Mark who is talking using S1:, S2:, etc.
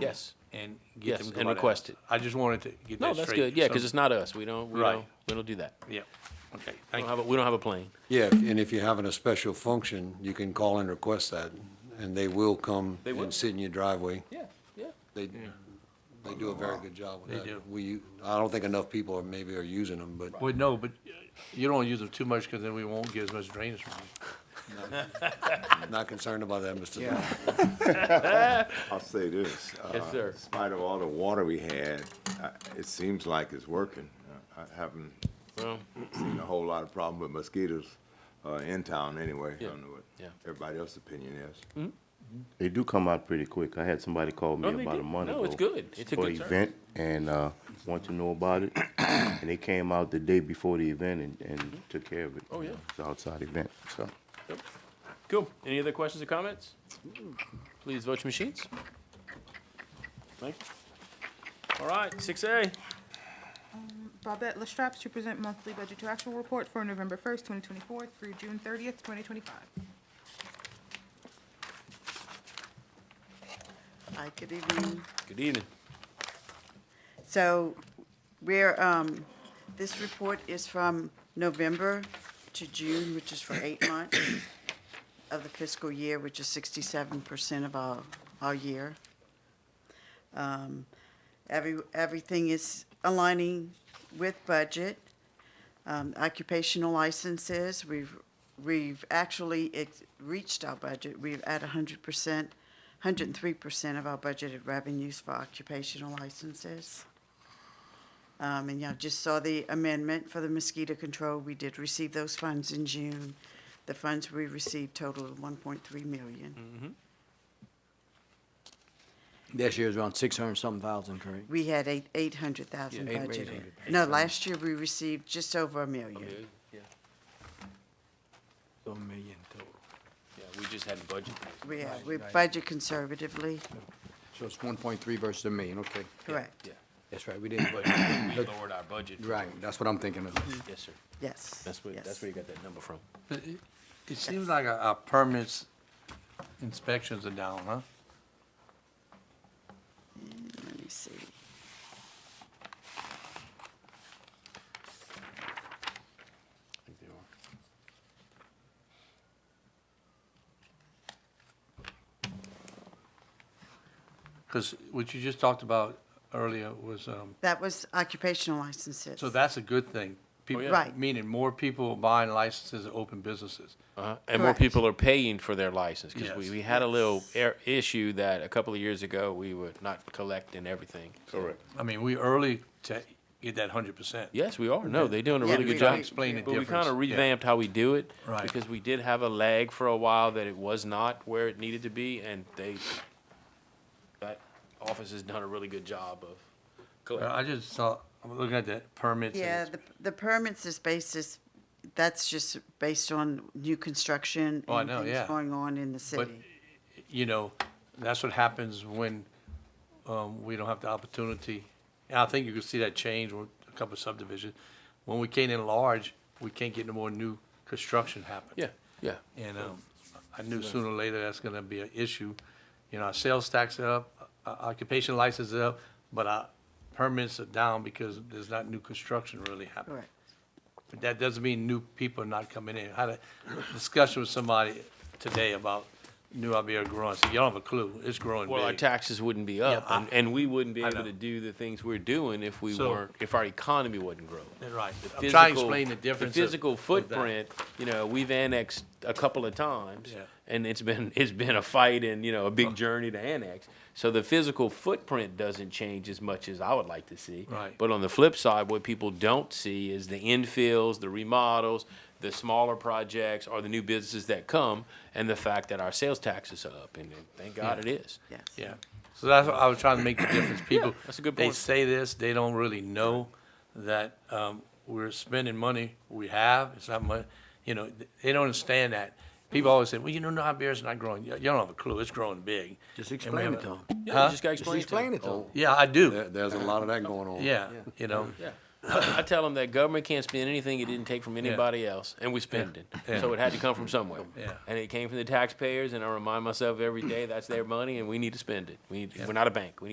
S1: Yes.
S2: and
S1: Yes,
S2: get them
S1: and
S2: going out.
S1: request it.
S2: I just wanted to get
S1: No,
S2: that straight.
S1: that's good. Yeah, because
S2: So-
S1: it's not us. We don't, we
S2: Right.
S1: don't, we don't do that.
S2: Yeah, okay,
S1: We
S2: thank
S1: don't
S2: you.
S1: have, a- we don't have a plane.
S3: Yeah, and if you're having a special function, you can call and request that, and they will come
S1: They will.
S3: and sit in your driveway.
S1: Yeah, yeah.
S3: They, they do a very good job with
S2: They
S3: that.
S2: do.
S3: We, I don't think enough people are, maybe are using them, but
S2: Well, no, but uh, you don't use them too much because then we won't get as much drainage from them.
S3: not concerned about that, Mr. Dillon.
S4: I'll say this.
S1: Yes,
S4: uh,
S1: sir.
S4: In spite of all the water we had, I- it seems like it's working. I I haven't
S1: Well,
S4: seen a whole lot of problem with mosquitoes uh, in town anyway. I don't know
S1: Yeah.
S4: what everybody else's opinion is.
S5: They do come out pretty quick. I had somebody call me
S1: No, they
S5: about
S1: do.
S5: a month ago.
S1: No, it's good. It's a
S5: for
S1: good
S5: an
S1: service.
S5: event and uh, want to know about it. and they came out the day before the event and, and took care of it.
S1: Oh, yeah.
S5: It's an outside event. So
S1: cool. Any other questions or comments? Please vote your machines. Thank you. All right, six A.
S6: Bobette Lestrapes to present monthly budget to actual report for November 1st, 2024 through June 30th, 2025.
S7: Hi, good evening.
S1: Good evening.
S7: So we're, um, this report is from November to June, which is for eight months of the fiscal year, which is sixty-seven percent of our, our year. Um, Every, everything is aligning with budget. Um, Occupational licenses, we've, we've actually ex- reached our budget. We've at hundred percent, hundred and three percent of our budgeted revenues for occupational licenses. Um, And y'all just saw the amendment for the mosquito control. We did receive those funds in June. The funds we received totaled one point three million.
S2: Mm.
S8: This year is around six hundred something thousand, correct?
S7: We had eight, eight hundred thousand
S8: Yeah, eight-
S7: budgeted.
S8: 800.
S7: No, last year we received just over a million.
S8: So a million total.
S1: Yeah, we just had a budget.
S7: We, uh,
S8: Right,
S7: we
S8: right.
S7: budget conservatively,
S8: So it's one point three versus a million, okay.
S7: correct,
S1: Yeah,
S8: That's right, we didn't,
S1: but
S8: but,
S1: we lowered our budget.
S8: right, that's what I'm thinking of.
S1: Yes, sir.
S7: yes.
S1: That's where, that's
S7: yes.
S1: where you got that number from.
S2: But it- It seems like our- our permits inspections are down, huh?
S7: Let me see.
S2: Because what you just talked about earlier was, um,
S7: That was occupational licenses.
S2: so that's a good thing.
S1: Oh,
S2: People-
S7: yeah. Right.
S2: Meaning more people buying licenses to open businesses.
S1: Uh-huh. And more
S7: Correct.
S1: people are paying for their license because we,
S2: Yes.
S1: we had a little air issue that a couple of years ago we were not collecting everything.
S5: correct.
S2: I mean, we early to get that hundred percent.
S1: Yes, we are. No, they're doing a
S7: Yeah,
S1: really
S7: we-
S1: good job.
S7: we- Explain the
S1: But we kind of
S2: difference. Yeah.
S1: revamped how we do it
S2: Right.
S1: because we did have a lag for a while that it was not where it needed to be, and they that office has done a really good job of collecting.
S2: I just saw, I'm looking at the permits. and
S7: Yeah,
S2: it's-
S7: the, the permits is basis, that's just based on new construction.
S2: Oh, I
S7: and
S2: know,
S7: things
S2: yeah.
S7: Going on in the
S2: But,
S7: city.
S2: you know, that's what happens when um, we don't have the opportunity. And I think you can see that change with a couple of subdivisions. When we can't enlarge, we can't get no more new construction happen.
S1: Yeah, yeah.
S2: And um, I knew sooner or later that's gonna be an issue. You know, our sales tax are up, our occupation license is up, but our permits are down because there's not new construction really happening.
S7: Correct.
S2: But that doesn't mean new people are not coming in. I had a discussion with somebody today about New Iberia growing. So y'all have a clue, it's growing
S1: Well, our
S2: big.
S1: taxes wouldn't be up,
S2: Yeah, I-
S1: and, and we wouldn't be
S2: I
S1: able
S2: know.
S1: to do the things we're doing if we
S2: So-
S1: weren't if our economy wasn't growing.
S2: Right.
S1: The
S2: I'm trying to
S1: physical-
S2: explain the difference.
S1: The
S2: of-
S1: physical
S2: of that.
S1: footprint, you know, we've annexed a couple of times,
S2: Yeah.
S1: and it's been it's been a fight and you know a big journey to annex. So the physical footprint doesn't change as much as I would like to see.
S2: Right.
S1: But on the flip side, what people don't see is the infills, the remodels, the smaller projects, or the new businesses that come, and the fact that our sales taxes are up, and thank God it is.
S7: Yes.
S2: Yeah, so that's what I was trying to make the difference. People,
S1: that's a good
S2: they
S1: point.
S2: say this, they don't really know that um, we're spending money we have. It's not money, you know, th- they don't understand that. People always say, well, you know, New Iberia's not growing. You you don't have a clue. It's growing big.
S8: Just
S2: And we
S8: explain it
S2: have a-
S8: to them.
S1: Yeah,
S2: Huh?
S1: you just gotta
S8: Just
S1: explain,
S8: explain
S1: to
S8: it to Oh, them.
S2: Yeah, I do.
S3: There, there's a lot of that going on.
S2: Yeah, you know,
S1: them. Yeah. I tell them that government can't spend anything it didn't take from anybody else, and we spend it.
S2: Yeah.
S1: So it had to come from somewhere.
S2: Yeah.
S1: And it came from the taxpayers, and I remind myself every day that's their money, and we need to spend it. We need, We're not a bank. We